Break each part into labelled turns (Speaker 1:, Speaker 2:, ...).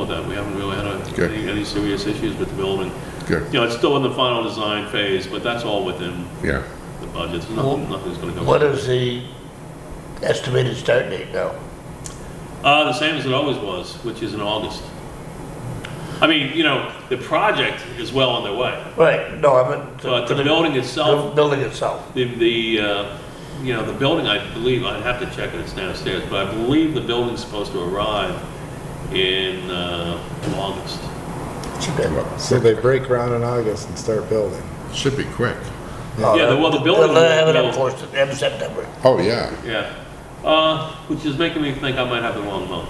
Speaker 1: with that. We haven't really had a-
Speaker 2: Okay.
Speaker 1: any any serious issues with the building.
Speaker 2: Good,
Speaker 1: You know, it's still in the final design phase, but that's all within
Speaker 2: yeah.
Speaker 1: the budget. There's nothing, nothing's going to go.
Speaker 3: What is the estimated start date now?
Speaker 1: Uh, the same as it always was, which is in August. I mean, you know, the project is well underway,
Speaker 3: Right, no, I meant.
Speaker 1: but the building itself
Speaker 3: The Building itself.
Speaker 1: The, the, uh, you know, the building, I believe, I'd have to check it, it's downstairs, but I believe the building's supposed to arrive in, uh, August.
Speaker 4: So they break ground in August and start building.
Speaker 2: Should be quick.
Speaker 1: Yeah, well, the building
Speaker 3: They'll have it
Speaker 1: will-
Speaker 3: enforced at the end of September.
Speaker 2: Oh, yeah.
Speaker 1: Yeah. Uh, which is making me think I might have the wrong month.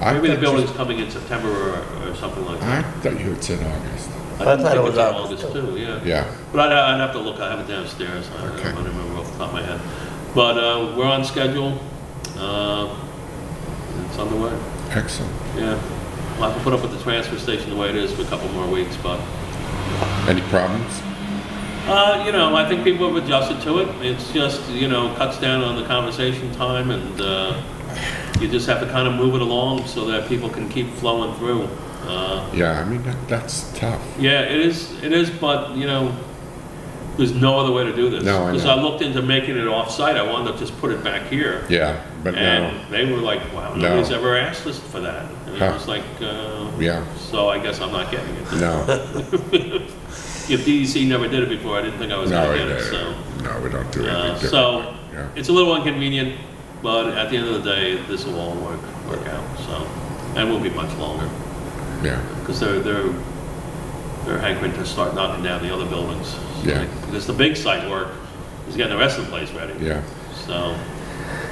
Speaker 2: I
Speaker 1: Maybe the
Speaker 2: thought you-
Speaker 1: building's coming in September or, or something like that.
Speaker 2: I thought you had said August.
Speaker 3: I thought it
Speaker 1: think
Speaker 3: was
Speaker 1: it's in
Speaker 3: August,
Speaker 1: August too, yeah.
Speaker 2: Yeah,
Speaker 1: But I'd, I'd have to look, I have it downstairs, I don't I
Speaker 2: Okay.
Speaker 1: don't remember off the top of my head. But, uh, we're on schedule, uh, it's underway.
Speaker 2: excellent.
Speaker 1: Yeah, we'll have to put up with the transfer station the way it is for a couple more weeks, but,
Speaker 2: Any problems?
Speaker 1: uh, you know, I think people have adjusted to it. It's just, you know, cuts down on the conversation time and, uh, you just have to kind of move it along so that people can keep flowing through. Uh,
Speaker 2: Yeah, I mean, that- that's tough.
Speaker 1: yeah, it is, it is, but, you know, there's no other way to do this.
Speaker 2: No, I
Speaker 1: Because
Speaker 2: know.
Speaker 1: I looked into making it off-site, I wanted to just put it back here.
Speaker 2: Yeah, but no,
Speaker 1: And they were like, wow,
Speaker 2: No.
Speaker 1: nobody's ever asked us for that. And
Speaker 2: Huh.
Speaker 1: I was like, uh,
Speaker 2: yeah,
Speaker 1: so I guess I'm not getting it.
Speaker 2: no,
Speaker 1: If DEC never did it before, I didn't think I was
Speaker 2: no,
Speaker 1: gonna get
Speaker 2: it-
Speaker 1: it, so.
Speaker 2: no, we don't do
Speaker 1: uh,
Speaker 2: anything different.
Speaker 1: So,
Speaker 2: Yeah.
Speaker 1: it's a little inconvenient, but at the end of the day, this will all work, work out, so. And will be much longer,
Speaker 2: Yeah,
Speaker 1: because they're, they're, they're hankering to start knocking down the other buildings. So,
Speaker 2: Yeah.
Speaker 1: Because the big site work is getting the rest of the place ready.
Speaker 2: yeah,
Speaker 1: So,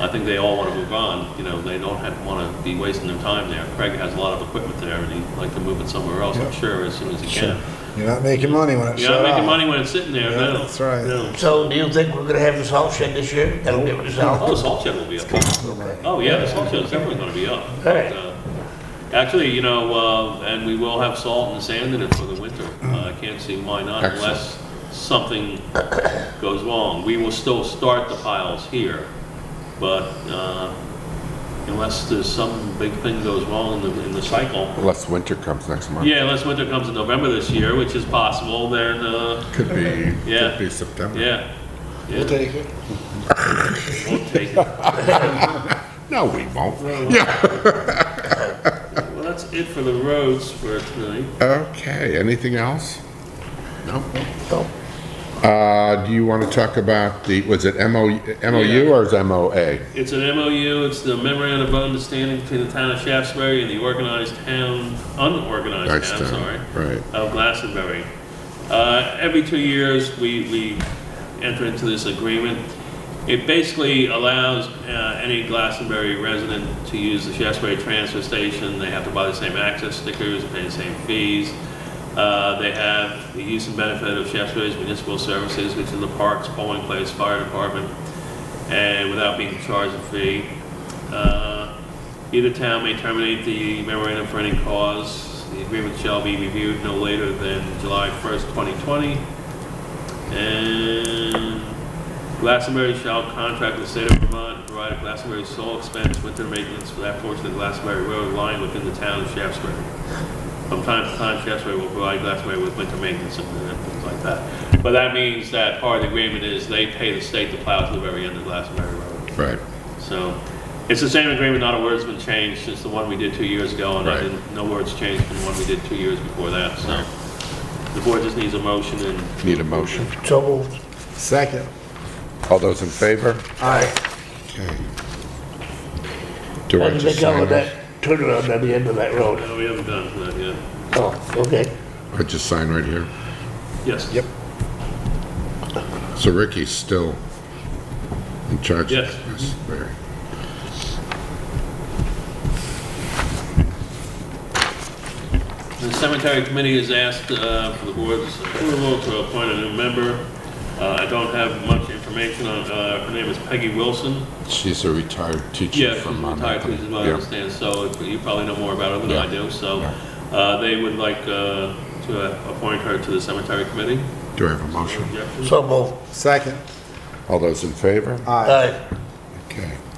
Speaker 1: I think they all wanna move on, you know, they don't have, wanna be wasting their time there. Craig has a lot of equipment there, and he'd like to move it somewhere else, I'm
Speaker 4: Yeah.
Speaker 1: sure, as soon as he can.
Speaker 4: You're not making money when it
Speaker 1: You're not
Speaker 4: shut
Speaker 1: making
Speaker 4: off.
Speaker 1: money when it's sitting there,
Speaker 4: Yeah,
Speaker 1: no.
Speaker 4: that's right.
Speaker 1: No.
Speaker 3: So do you think we're gonna have the salt shed this year? That'll give it a
Speaker 1: Oh, the
Speaker 3: salt?
Speaker 1: salt shed will be up. Oh, yeah, the salt shed is definitely gonna be up. But, uh, Actually, you know, uh, and we will have salt and sand in it for the winter. Uh, I can't see why not
Speaker 2: Excellent.
Speaker 1: unless something goes wrong. We will still start the piles here, but, uh, unless there's some big thing goes wrong in the, in the cycle.
Speaker 2: unless winter comes next month.
Speaker 1: Yeah, unless winter comes in November this year, which is possible, then, uh,
Speaker 2: Could be,
Speaker 1: Yeah.
Speaker 2: could be September.
Speaker 1: yeah.
Speaker 4: We'll
Speaker 1: Yeah,
Speaker 4: take it.
Speaker 1: we'll take it.
Speaker 2: No, we won't. Yeah,
Speaker 1: Well, that's it for the roads for tonight.
Speaker 2: okay, anything else? No?
Speaker 3: No.
Speaker 2: Uh, do you want to talk about the, was it MO,
Speaker 1: Yeah.
Speaker 2: MOU or is it MOA?
Speaker 1: It's an MOU, it's the memorandum of understanding between the town of Shaftesbury and the organized town, unorganized
Speaker 2: Nice
Speaker 1: town, sorry,
Speaker 2: town, right,
Speaker 1: of Glastonbury. Uh, every two years, we, we enter into this agreement. It basically allows, uh, any Glastonbury resident to use the Shaftesbury transfer station. They have to buy the same access stickers, pay the same fees. Uh, They have the use and benefit of Shaftesbury's municipal services, which is the parks, polling place, fire department, and without being charged a fee. Uh, Either town may terminate the memorandum for any cause. The agreement shall be reviewed no later than July 1st, 2020. And Glastonbury shall contract with the state of Vermont to provide Glastonbury's sole expense winter maintenance for that portion of Glastonbury Road lying within the town of Shaftesbury. From time to time, Shaftesbury will provide Glastonbury with winter maintenance and uh, things like that. But that means that part of the agreement is they pay the state to plow to the very end of Glastonbury Road.
Speaker 2: right,
Speaker 1: So it's the same agreement, not a word's been changed since the one we did two years ago, and I
Speaker 2: Right.
Speaker 1: didn't, no words changed from the one we did two years before that, so. The board just needs a motion and.
Speaker 2: need a motion?
Speaker 3: So moved.
Speaker 4: Second.
Speaker 2: All those in favor?
Speaker 3: Aye.
Speaker 2: Okay. Do
Speaker 3: How
Speaker 2: I
Speaker 3: do
Speaker 2: just
Speaker 3: they go
Speaker 2: sign
Speaker 3: with
Speaker 2: this?
Speaker 3: that turnaround at the end of that road?
Speaker 1: No, we haven't done that yet.
Speaker 3: Oh, okay.
Speaker 2: I just sign right here.
Speaker 1: Yes.
Speaker 4: Yep.
Speaker 2: So Ricky's still in charge? of
Speaker 1: Yes.
Speaker 2: this? Very.
Speaker 1: The cemetery committee has asked uh, for the board's approval to appoint a new member. Uh, I don't have much information on, uh, her name is Peggy Wilson.
Speaker 2: She's a retired teacher
Speaker 1: Yeah, she's
Speaker 2: from Mount
Speaker 1: retired,
Speaker 2: Anthony.
Speaker 1: as well, I
Speaker 2: Yeah.
Speaker 1: understand, so if- you probably know more about her than
Speaker 2: Yeah.
Speaker 1: I do, so, uh, they would like, uh, to uh, appoint her to the cemetery committee.
Speaker 2: Do I have a motion?
Speaker 1: Objection?
Speaker 3: So moved.
Speaker 4: Second.
Speaker 2: All those in favor?
Speaker 4: Aye.
Speaker 3: Aye.
Speaker 2: Okay.